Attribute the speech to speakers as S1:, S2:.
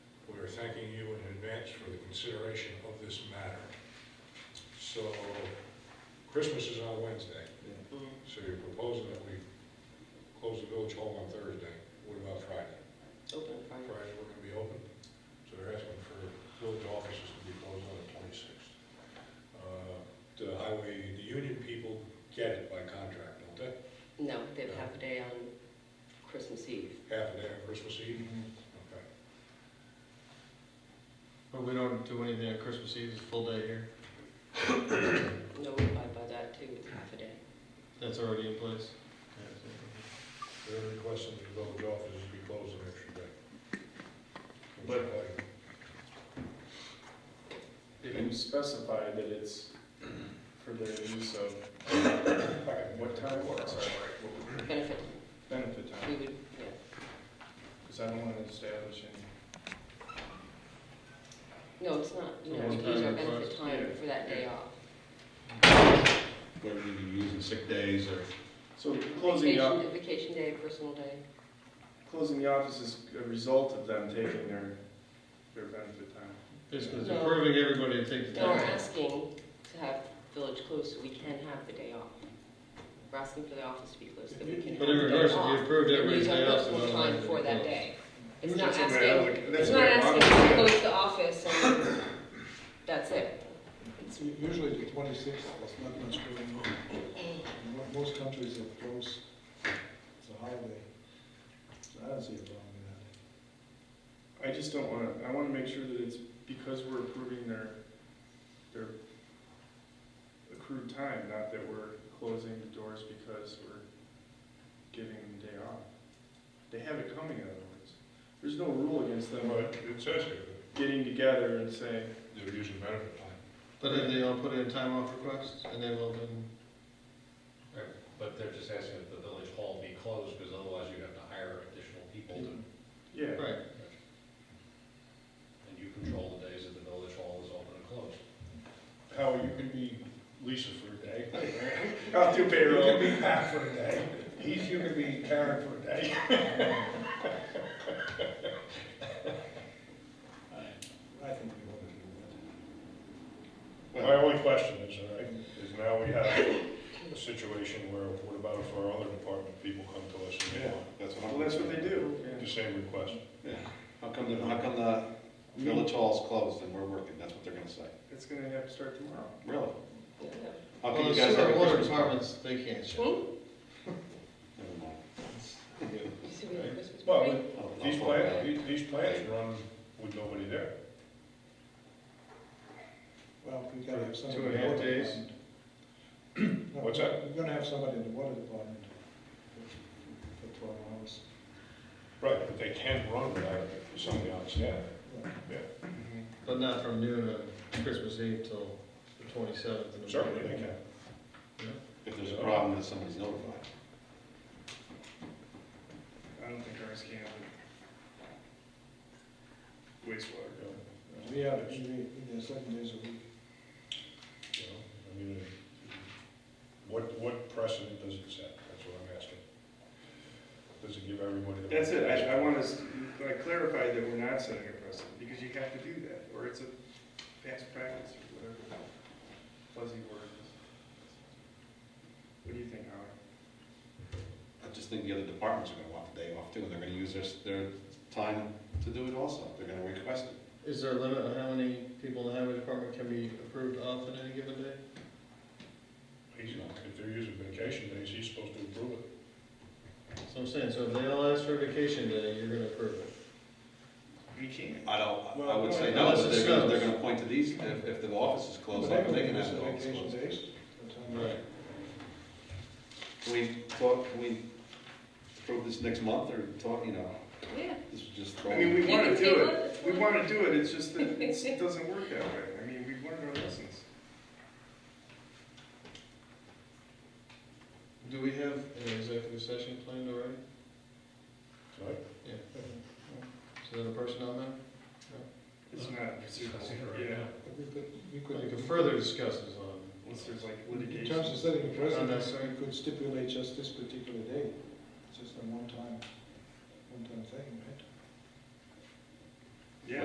S1: consideration of this matter. So Christmas is on Wednesday, so you're proposing that we close the village hall on Thursday. What about Friday?
S2: Open Friday.
S1: Friday, we're gonna be open, so they're asking for village offices to be closed on the twenty-sixth. Uh, The highway, the union people get it by contract, don't they?
S2: No, they have half a day on Christmas Eve.
S1: Half a day on Christmas Eve? Okay.
S3: But we don't do anything on Christmas Eve, it's a full day here.
S2: No, we abide by that too, it's half a day.
S3: That's already in place.
S1: They're requesting the village offices be closed an extra day.
S4: But- If you specify that it's for the use of, what time, what, sorry,
S2: Benefit,
S4: benefit
S2: we
S4: time,
S2: would, yeah.
S4: because I don't want to establish any.
S2: No, it's not, you
S3: So
S2: know,
S3: one
S2: it's use
S3: time
S2: our benefit
S3: request,
S2: time
S4: yeah,
S2: for that day
S4: yeah.
S2: off.
S5: whether you're using sick days or
S4: So closing the, op-
S2: Vacation- Vacation day, personal day.
S4: closing the office is a result of them taking their, their benefit time.
S3: It's it's
S2: No.
S3: approving everybody to take the
S2: No, we're
S3: time.
S2: asking to have village closed so we can have the day off. We're asking for the office to be closed so we can have the
S3: But
S2: day
S3: in
S2: off.
S3: regards, if you approved
S2: Use
S3: everybody's
S2: our
S3: day off, then
S2: personal
S3: we'll
S2: time
S3: have to
S2: for that
S3: close.
S2: day. It's not
S4: That's the way I
S2: asking,
S4: look- that's
S2: it's
S4: the
S2: not
S4: way I
S2: asking
S4: look
S2: to
S4: at it.
S2: close the office and that's it.
S6: Usually the twenty-sixth, there's not much going on. And mo- Most countries are closed, it's a holiday. So I don't see a problem with that.
S4: I just don't want to, I want to make sure that it's because we're approving their, their accrued time, not that we're closing the doors because we're giving them the day off. They have it coming otherwise. There's no rule against them
S1: But it says here
S4: getting together and saying,
S1: that they're using benefit time.
S3: But then they all put in time off requests, and they will then,
S7: But they're just asking that the village hall be closed, because otherwise you have to hire additional people, to-
S4: yeah,
S3: right.
S7: and you control the days that the village hall is open and closed.
S1: How you can be Lisa for a day.
S4: I'll do
S1: You
S4: payroll.
S1: can be Pat for a day. He's, you can be Karen for a day.
S6: I think we ought to do that.
S1: My only question is, all right, is now we have a situation where, what about if our other department people come to us and they want
S5: that's what I'm.
S4: Well, that's what they do.
S1: the same request?
S5: Yeah, how come, the how come the village hall's closed and we're working, that's what they're gonna say,
S4: It's gonna have to start tomorrow.
S5: really?
S2: Yeah, no.
S5: How
S3: Well,
S5: come
S3: the
S5: you guys have
S3: sewer
S5: a
S3: water
S5: Christmas party?
S3: departments, they can't shut.
S2: Hmm?
S5: Never mind.
S2: You see we have a Christmas
S1: Well,
S2: party?
S5: I'll- I'll
S1: These
S5: talk
S1: plants,
S5: about it.
S1: these- these plants run with nobody there.
S6: Well, we gotta have somebody.
S3: Two and
S6: in
S3: a
S6: the
S3: half
S6: water
S3: days.
S6: department. No,
S1: What's that?
S6: We're gonna have somebody in the water department for- for twelve hours.
S1: Right, but they can run without somebody on staff.
S6: Yeah.
S4: Mm-hmm.
S3: But not from noon on Christmas Eve till the twenty-seventh.
S1: Certainly they can.
S5: If there's a problem, then somebody's notified.
S4: I don't think ours can. but Wastewater, no.
S6: We have, we, we, there's seven days a week.
S1: You know, I mean, uh, what, what precedent does it set? That's what I'm asking. Does it give everybody the?
S4: That's it, I, I want us, I clarified that we're not setting a precedent, because you have to do that, or it's a past practice or whatever. Fuzzy word. What do you think, Howard?
S5: I just think the other departments are gonna want the day off too, and they're gonna use their, s- their time to do it also, they're gonna request it.
S3: Is there a limit on how many people in the highway department can be approved off on any given day?
S1: He's not, if they're using vacation days, he's supposed to approve it.
S3: So I'm saying, so if they all ask for a vacation day, you're gonna approve it.
S4: We can't.
S5: I don't, I
S4: Well,
S5: would say
S3: no,
S5: no,
S3: it's
S5: but
S3: a
S5: they're gonna,
S3: service.
S5: they're gonna point to these, if, if the office is closed,
S6: But
S5: they can
S6: everybody
S5: have the
S6: has
S5: office
S6: vacation
S5: closed.
S6: days, that's how many-
S5: Can we talk, can we approve this next month or talk, you know,
S2: Yeah.
S5: this is just.
S4: I mean, we
S2: You
S4: wanna
S2: can
S4: do
S2: take
S4: it,
S2: off.
S4: we wanna do it, it's just that it's- it doesn't work that way, I mean, we've learned our lessons.
S3: Do we have an executive session planned already?
S1: Right?
S3: Yeah. Is that a personnel matter?
S4: It's not, it's,
S7: Discussing it right
S4: yeah,
S7: now.
S6: But We could,
S3: We
S6: we could.
S3: could further discuss this on.
S4: unless there's like
S6: In
S4: litigation.
S6: terms of setting a precedent,
S3: Unnecessary.
S6: we could stipulate just this particular day, It's just a one-time, one-time thing, right?